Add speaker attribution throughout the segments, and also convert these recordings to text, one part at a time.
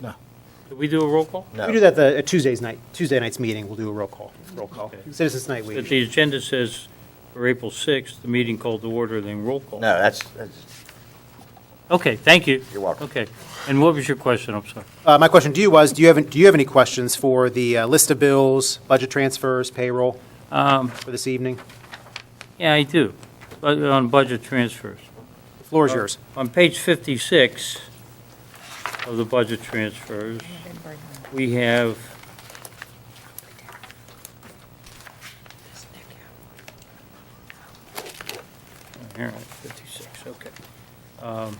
Speaker 1: No.
Speaker 2: Did we do a roll call?
Speaker 1: No.
Speaker 3: We do that the at Tuesday's night, Tuesday night's meeting, we'll do a roll call, roll call.
Speaker 2: Okay.
Speaker 3: Citizens Night
Speaker 2: But
Speaker 3: Week.
Speaker 2: the agenda says for April 6th, the meeting called to order, then roll call.
Speaker 1: No, that's, that's-
Speaker 2: Okay, thank you.
Speaker 1: You're welcome.
Speaker 2: Okay. And what was your question? I'm sorry.
Speaker 3: Uh, my question to you was, do you have, do you have any questions for the uh, list of bills, budget transfers, payroll for this evening?
Speaker 2: Yeah, I do, But on budget transfers.
Speaker 3: The floor is yours.
Speaker 2: On page 56 of the budget transfers, we have Here, 56, okay. Um,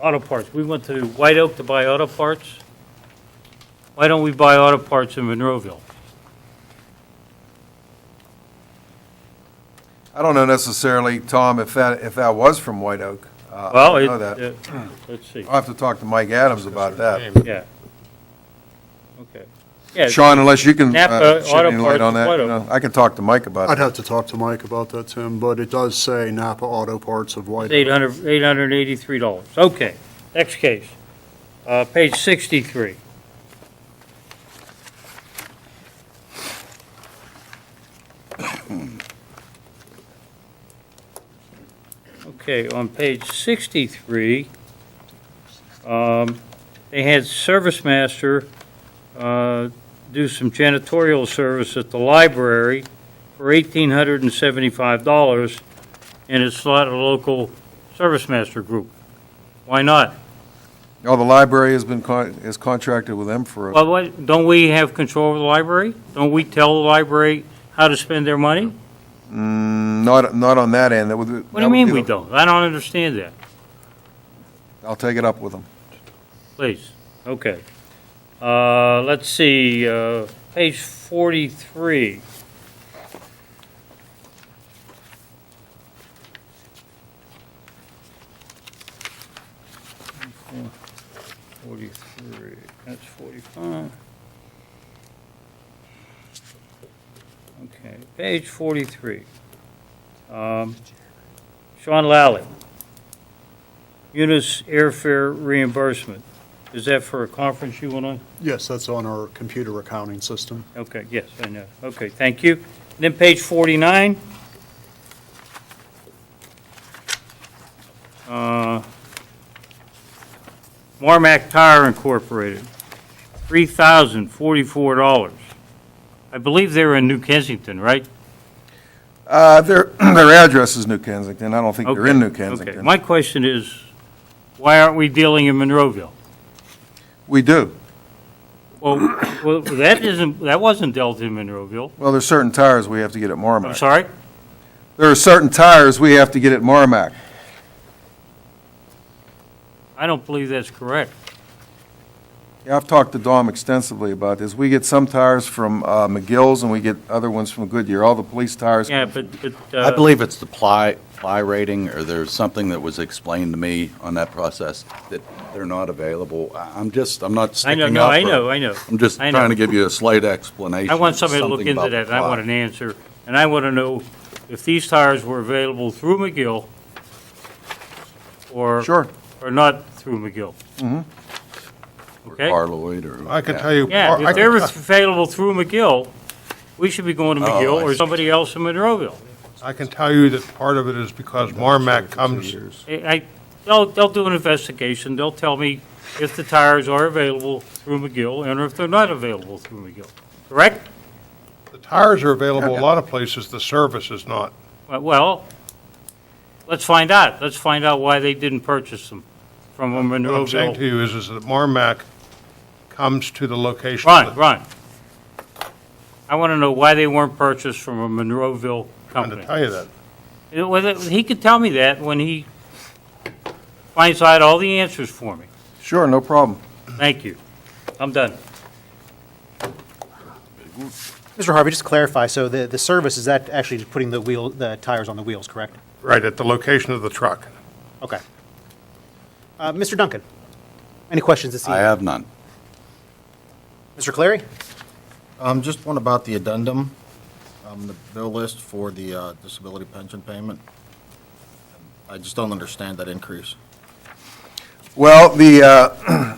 Speaker 2: Auto parts, we went to White Oak to buy auto parts. Why don't we buy auto parts in Monroeville?
Speaker 4: I don't know necessarily, Tom, if that, if that was from White Oak. Uh,
Speaker 2: Well,
Speaker 4: I
Speaker 2: it,
Speaker 4: don't know that.
Speaker 2: uh, let's see,
Speaker 4: I'll have to talk to Mike Adams about that.
Speaker 2: yeah. Okay. Yeah,
Speaker 4: Sean, unless you can
Speaker 2: Napa
Speaker 4: uh, shed any
Speaker 2: Auto
Speaker 4: light on
Speaker 2: Parts is
Speaker 4: that,
Speaker 2: White
Speaker 4: you
Speaker 2: Oak.
Speaker 4: know, I can talk to Mike about
Speaker 5: I'd
Speaker 4: it.
Speaker 5: have to talk to Mike about that, Tim, but it does say Napa Auto Parts of White. Oak.
Speaker 2: $800 $883. Okay, next case. Uh, Page 63. Okay, on page 63, um, they had Service Master uh, do some janitorial service at the library for $1,875 and it's not a local service master group. Why not?
Speaker 4: Oh, the library has been, con- is contracted with them for, a-
Speaker 2: Well, what, don't we have control of the library? Don't we tell the library how to spend their money?
Speaker 4: Mm, not, not on that end. That would-
Speaker 2: What
Speaker 4: that
Speaker 2: do you
Speaker 4: would
Speaker 2: mean
Speaker 4: be-
Speaker 2: we don't? I don't understand that,
Speaker 4: I'll take it up with them.
Speaker 2: please. Okay. Uh, let's see, uh, page forty-three. Forty-three, that's forty-five. Okay, page forty-three. Um, Sean Lally. Munis airfare reimbursement. Is that for a conference you went on?
Speaker 5: Yes, that's on our computer accounting system.
Speaker 2: Okay, yes, I know. Okay, thank you. And Then page 49. Uh, Marmac Tire Incorporated, $3,044. I believe they're in New Kensington, right?
Speaker 4: Uh, Their, their address is New Kensington. I don't think they're
Speaker 2: Okay,
Speaker 4: in New
Speaker 2: Okay,
Speaker 4: Kensington.
Speaker 2: my question is, why aren't we dealing in Monroeville?
Speaker 4: We do.
Speaker 2: Well, well, that isn't, that wasn't dealt in Monroeville.
Speaker 4: Well, there's certain tires we have to get at
Speaker 2: I'm
Speaker 4: Marmac.
Speaker 2: sorry?
Speaker 4: There are certain tires we have to get at Marmac.
Speaker 2: I don't believe that's correct.
Speaker 4: Yeah, I've talked to Dom extensively about this. We get some tires from uh, McGill's and we get other ones from Goodyear. All the police tires.
Speaker 2: Yeah, but, but.
Speaker 6: I
Speaker 2: uh,
Speaker 6: believe it's the ply, ply rating, or there's something that was explained to me on that process, that they're not available. I- I'm just, I'm not
Speaker 2: I
Speaker 6: sticking
Speaker 2: know,
Speaker 6: up.
Speaker 2: no, I
Speaker 6: for-
Speaker 2: know, I know.
Speaker 6: I'm just
Speaker 2: I know.
Speaker 6: trying to give you a slight explanation.
Speaker 2: I want somebody to look
Speaker 6: something
Speaker 2: into
Speaker 6: about
Speaker 2: that, and
Speaker 6: the
Speaker 2: I
Speaker 6: ply.
Speaker 2: want an answer, and I want to know if these tires were available through McGill or.
Speaker 4: Sure.
Speaker 2: Or not through McGill. Mm-hmm.
Speaker 6: Or
Speaker 2: Okay?
Speaker 6: Carloid, or.
Speaker 1: I can tell you.
Speaker 2: Yeah,
Speaker 1: I
Speaker 2: if they're
Speaker 1: can-
Speaker 2: available through McGill, we should be going to
Speaker 6: Oh,
Speaker 2: McGill
Speaker 6: I
Speaker 2: or
Speaker 6: see.
Speaker 2: somebody else in Monroeville.
Speaker 1: I can tell you that part of it is because Marmac comes,
Speaker 2: I- I, they'll, they'll do an investigation, they'll tell me if the tires are available through McGill and if they're not available through McGill, correct?
Speaker 1: the tires are available a lot of places, the service is not.
Speaker 2: Well, let's find out, let's find out why they didn't purchase them from a
Speaker 1: What I'm saying to
Speaker 2: Monroeville.
Speaker 1: you is, is that Marmac comes to the location.
Speaker 2: Ron,
Speaker 1: that-
Speaker 2: Ron, I want to know why they weren't purchased from a Monroeville
Speaker 1: I'm going
Speaker 2: company.
Speaker 1: to tell you that.
Speaker 2: You know, whether- He could tell me that when he finds out all the answers for me.
Speaker 4: Sure, no problem.
Speaker 2: Thank you, I'm done.
Speaker 3: Mr. Harvey, just to clarify, so the, the service, is that actually just putting the wheel, the tires on the wheels, correct?
Speaker 1: Right, at the location of the truck.
Speaker 3: Okay. Uh, Mr. Duncan, any questions this
Speaker 6: I
Speaker 3: evening?
Speaker 6: have none.
Speaker 3: Mr. Clary?
Speaker 7: Um, just one about the addendum, um, the bill list for the, uh, disability pension payment. I just don't understand that increase.
Speaker 4: Well, the, uh,